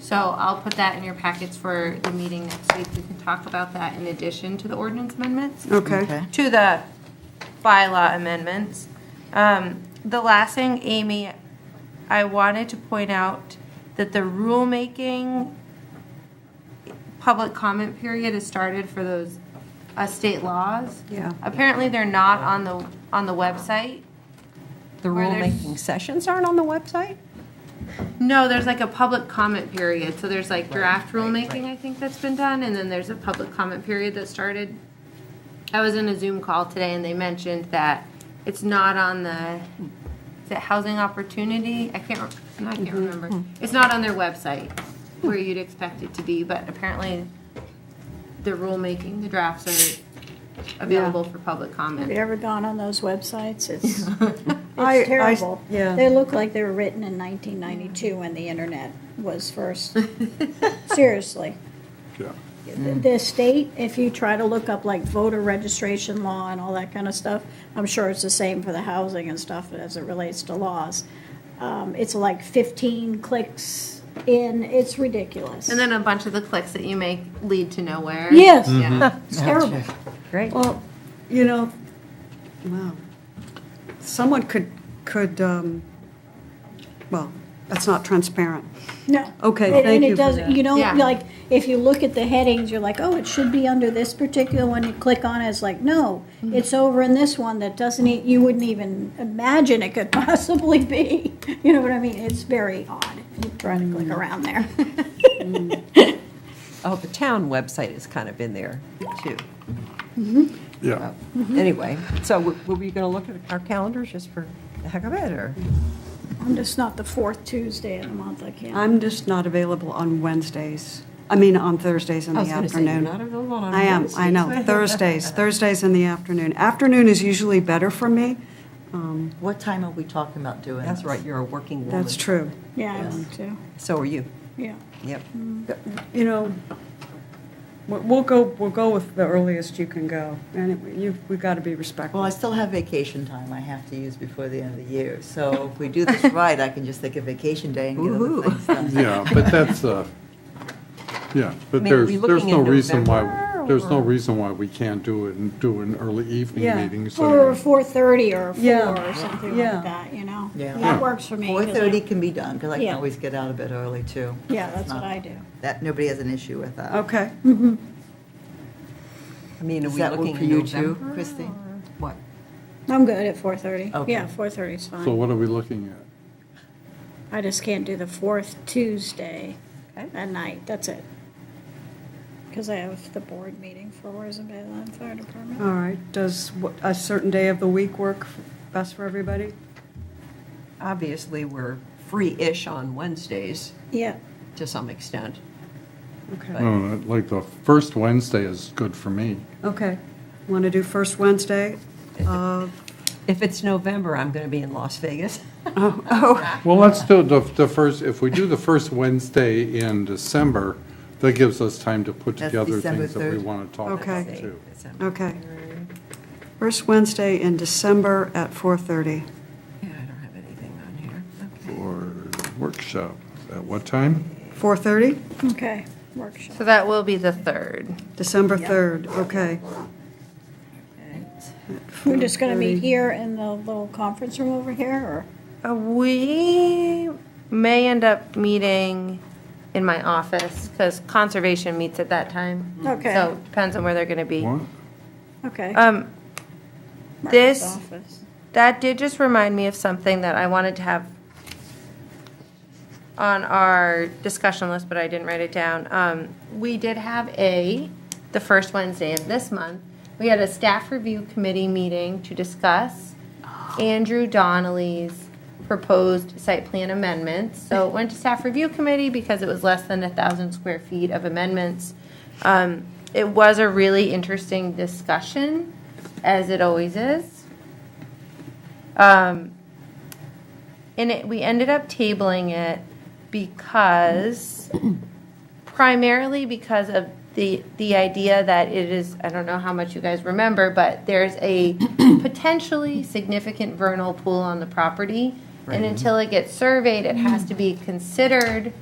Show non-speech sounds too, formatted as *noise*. So I'll put that in your packets for the meeting next week. We can talk about that in addition to the ordinance amendments. Okay. to the bylaw amendments. Um, The last thing, Amy, I wanted to point out that the rulemaking public comment period has started for those uh, state laws. Yeah. Apparently, they're not on the, on the website. The Where there's- rulemaking sessions aren't on the website? No, there's like a public comment period, so there's like draft rulemaking, I think, that's been done, and then there's a public comment period that started. I was in a Zoom call today and they mentioned that it's not on the, is it Housing Opportunity? I can't, re- I can't remember. It's not on their website where you'd expect it to be, but apparently the rulemaking, the drafts are available for public Have you comment. ever gone on those websites? It's, *laughs* I- I- it's terrible. yeah. They look like they were written in 1992 when the internet was first. Seriously. Yeah. The state, if you try to look up like voter registration law and all that kind of stuff, I'm sure it's the same for the housing and stuff as it relates to laws. Um, It's like 15 clicks in, it's ridiculous. And then a bunch of the clicks that you make lead to nowhere. Yes. Mm-hmm. Yeah. Mm-hmm. It's terrible. Great. Well, you know, wow. Someone could, could, um, well, that's not transparent. No. Okay, And- thank And you it for doesn't, that. you Yeah. don't, like, if you look at the headings, you're like, oh, it should be under this particular one, you click on it, it's like, no, it's over in this one that doesn't, e- you wouldn't even imagine it could *laughs* possibly be. You know what I mean? It's very odd, trying to Mm. click around there. *laughs* Oh, the town website is kind of in there, too. Oh. Mm-hmm. Yeah. Oh. Anyway, so w- were we going to look at our calendars just for the heck of it, or? I'm just not the fourth Tuesday of the month, I can't. I'm just not available on Wednesdays, I mean, on Thursdays in the I was gonna say, afternoon. you're not available on I am, I know, Wednesdays. *laughs* Thursdays, Thursdays in the afternoon. Afternoon is usually better for me, What time are we talking about doing? That's this? right, you're a working woman. that's true. Yeah, I want to, So are you. yeah. Yep. You know, we- we'll go, we'll go with the earliest you can go, and you, we've got to be Well, I respectful. still have vacation time I have to use before the end of the year. So if we *laughs* do this right, I can just take a vacation day and get other things done. Yeah, but that's, uh, yeah, but I mean, are there's, we there's looking no in reason why, November, there's no or- reason why we can't do it and do an early evening Yeah. meeting, Or so. four thirty or Yeah. four or something Yeah. like that, you know? Yeah. That works for me. 'cause I- 4:30 can be done, because I can Yeah. always get out a bit early, too. Yeah, It's that's what not- I do. That, nobody has an issue with that. Okay, I mean, are Does we that work looking for in you, too, November? Christine? What? I'm good at four thirty. Okay. Yeah, four thirty is fine. So what are we looking at? I just can't do the fourth Tuesday Okay. at night, that's it. Because I have the board meeting for Rosenbaum Land Fire Department. all right. Does wh- a certain day of the week work f- best for everybody? Obviously, we're free-ish on Wednesdays Yeah, to some extent. Okay, No, Oh, like the first Wednesday is good for me. okay. Want to do first Wednesday? of- If it's November, I'm going to be in Las Vegas. Well, let's do the, the first, if we do the first Wednesday in December, that gives us time to put That's together December things that we 3rd. want to talk Okay. about, too. Okay. First Wednesday in December at 4:30. Yeah, I don't have anything on here. Okay. Or workshop, at what time? 4:30? okay, workshop. So that will be the third. December 3rd, okay. We're just gonna meet here in the little conference room over here, or? Uh, We may end up meeting in my office because conservation meets at that time. Okay. So depends on where they're going to be. What? Okay. Um, Mark's this- office. that did just remind me of something that I wanted to have on our discussion list, but I didn't write it down. Um, we did have a, the first Wednesday of this month, we had a staff review committee meeting to discuss Andrew Donnelly's proposed site plan amendments. So it went to staff review committee because it was less than a thousand square feet of amendments. Um, it was a really interesting discussion, as it always is. Um, and it, we ended up tabling it because, primarily because of the, the idea that it is, I don't know how much you guys remember, but there's a potentially significant vernal pool on the property. And until it gets surveyed, it has to be considered